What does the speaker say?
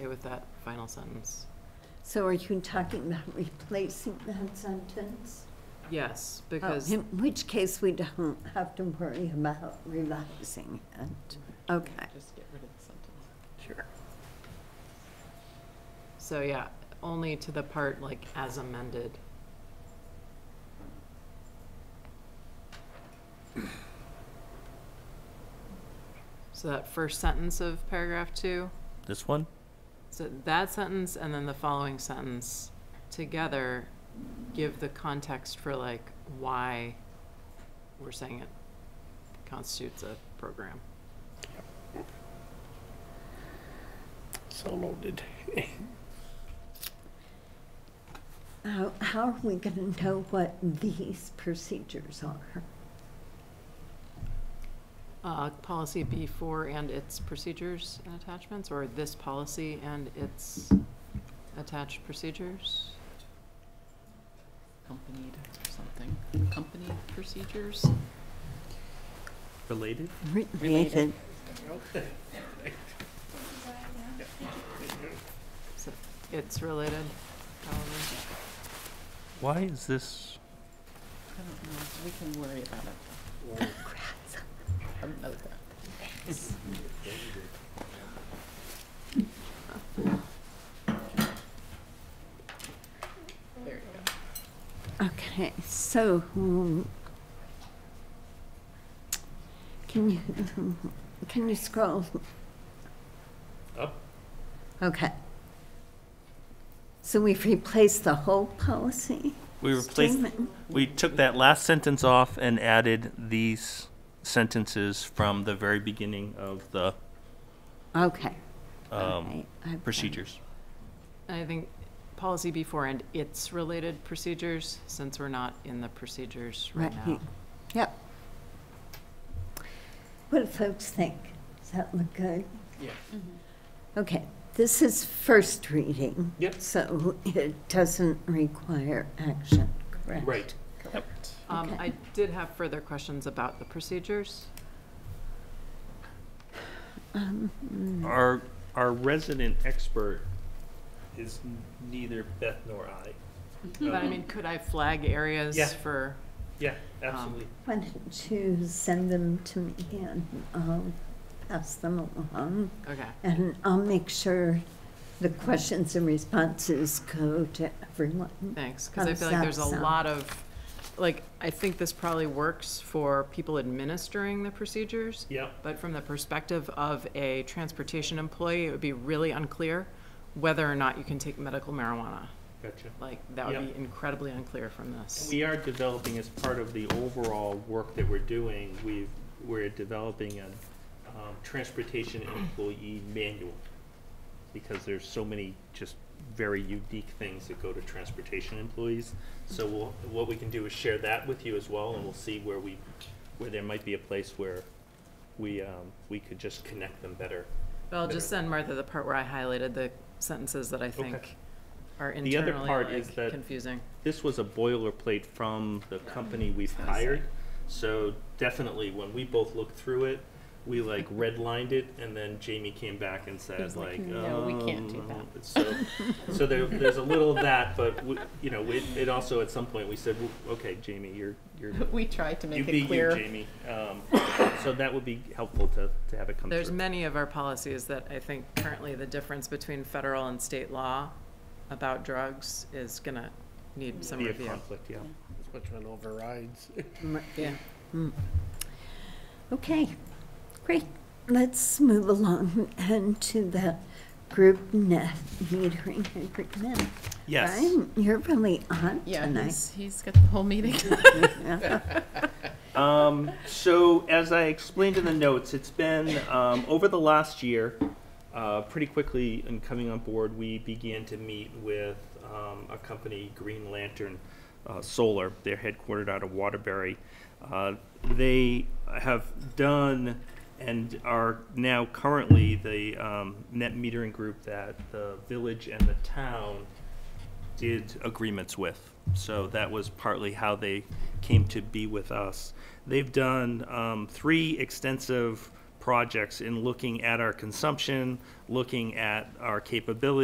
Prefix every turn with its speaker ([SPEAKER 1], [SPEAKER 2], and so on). [SPEAKER 1] with that final sentence.
[SPEAKER 2] So are you talking about replacing that sentence?
[SPEAKER 1] Yes,
[SPEAKER 2] Oh,
[SPEAKER 1] because,
[SPEAKER 2] In which case, we don't have to worry about revising it. Okay.
[SPEAKER 1] just get rid of the sentence.
[SPEAKER 2] Sure.
[SPEAKER 1] So, yeah, only to the part like as amended. So that first sentence of paragraph two,
[SPEAKER 3] This one?
[SPEAKER 1] so that sentence and then the following sentence together give the context for like why we're saying it constitutes a program.
[SPEAKER 4] So loaded.
[SPEAKER 2] How, how are we going to know what these procedures are?
[SPEAKER 1] Uh, Policy B4 and its procedures and attachments, or this policy and its attached procedures? Accompanied or something, accompanied procedures?
[SPEAKER 3] Related?
[SPEAKER 2] Related.
[SPEAKER 1] So It's related, probably.
[SPEAKER 3] Why is this?
[SPEAKER 5] I don't know, we can worry about it another time. There you go.
[SPEAKER 2] Okay, so um, can you, can you scroll?
[SPEAKER 3] Up.
[SPEAKER 2] Okay. So we've replaced the whole policy?
[SPEAKER 3] We replaced,
[SPEAKER 2] statement?
[SPEAKER 3] we took that last sentence off and added these sentences from the very beginning of the
[SPEAKER 2] Okay.
[SPEAKER 3] um,
[SPEAKER 2] alright, I've-
[SPEAKER 3] procedures.
[SPEAKER 1] And I think policy B4 and its related procedures, since we're not in the procedures right
[SPEAKER 2] Right.
[SPEAKER 1] now.
[SPEAKER 2] Yep. What do folks think? Does that look good? Mm-hmm.
[SPEAKER 4] Yeah.
[SPEAKER 2] Okay, this is first reading.
[SPEAKER 4] Yep.
[SPEAKER 2] So it doesn't require action, correct?
[SPEAKER 4] Right.
[SPEAKER 1] Um,
[SPEAKER 2] Okay.
[SPEAKER 1] I did have further questions about the procedures.
[SPEAKER 2] Um, mm,
[SPEAKER 3] Our, our resident expert is neither Beth nor I.
[SPEAKER 1] But I mean, could I flag areas
[SPEAKER 3] Mm-hmm. Yeah.
[SPEAKER 1] for?
[SPEAKER 3] Um, Yeah,
[SPEAKER 1] absolutely.
[SPEAKER 2] Why don't you send them to me and I'll pass them along?
[SPEAKER 1] Okay,
[SPEAKER 2] And I'll make sure the questions and responses go to everyone.
[SPEAKER 1] thanks, because
[SPEAKER 2] How
[SPEAKER 1] I
[SPEAKER 2] does
[SPEAKER 1] feel like
[SPEAKER 2] that
[SPEAKER 1] there's a
[SPEAKER 2] sound?
[SPEAKER 1] lot of, like, I think this probably works for people administering the procedures,
[SPEAKER 3] Yeah.
[SPEAKER 1] but from the perspective of a transportation employee, it would be really unclear whether or not you can take medical marijuana.
[SPEAKER 3] Gotcha.
[SPEAKER 1] Like, that would
[SPEAKER 3] Yep.
[SPEAKER 1] be incredibly unclear from this.
[SPEAKER 3] We are developing as part of the overall work that we're doing, we've, we're developing a um, transportation employee manual. Because there's so many just very unique things that go to transportation employees. So we'll, what we can do is share that with you as well and we'll see where we, where there might be a place where we, um, we could just connect them better.
[SPEAKER 1] But I'll just send Martha the part where I highlighted the sentences that I think are
[SPEAKER 3] The other
[SPEAKER 1] internally,
[SPEAKER 3] part is
[SPEAKER 1] like,
[SPEAKER 3] that-
[SPEAKER 1] confusing.
[SPEAKER 3] this was a boilerplate from the company we've hired. So definitely, when we both looked through it, we like redlined it, and then Jamie came back and said
[SPEAKER 5] He's
[SPEAKER 3] like,
[SPEAKER 5] like, "No, we can't do
[SPEAKER 3] um, So, so there, there's a little of that, but we, you know, it, it also at some point we said, "Well, okay, Jamie, you're you're
[SPEAKER 5] We tried to
[SPEAKER 3] you
[SPEAKER 5] make
[SPEAKER 3] be
[SPEAKER 5] it
[SPEAKER 3] you,
[SPEAKER 5] clear.
[SPEAKER 3] Jamie. Um, so that would be helpful to, to have it come
[SPEAKER 1] There's
[SPEAKER 3] through.
[SPEAKER 1] many of our policies that I think currently the difference between federal and state law about drugs is gonna need some
[SPEAKER 3] be a
[SPEAKER 1] review.
[SPEAKER 3] conflict, yeah.
[SPEAKER 4] Which one overrides?
[SPEAKER 1] Yeah.
[SPEAKER 2] Okay, great. Let's move along and to the group net metering agreement. Brian, you're really on
[SPEAKER 5] Yeah,
[SPEAKER 2] tonight.
[SPEAKER 5] he's, he's got the whole meeting.
[SPEAKER 3] Um, so as I explained in the notes, it's been, um, over the last year, uh, pretty quickly in coming on board, we began to meet with, um, a company, Green Lantern, uh, Solar. They're headquartered out of Waterbury. Uh, they have done and are now currently the, um, net metering group that the village and the town did agreements with. So that was partly how they came to be with us. They've done um, three extensive projects in looking at our consumption, looking at our capability.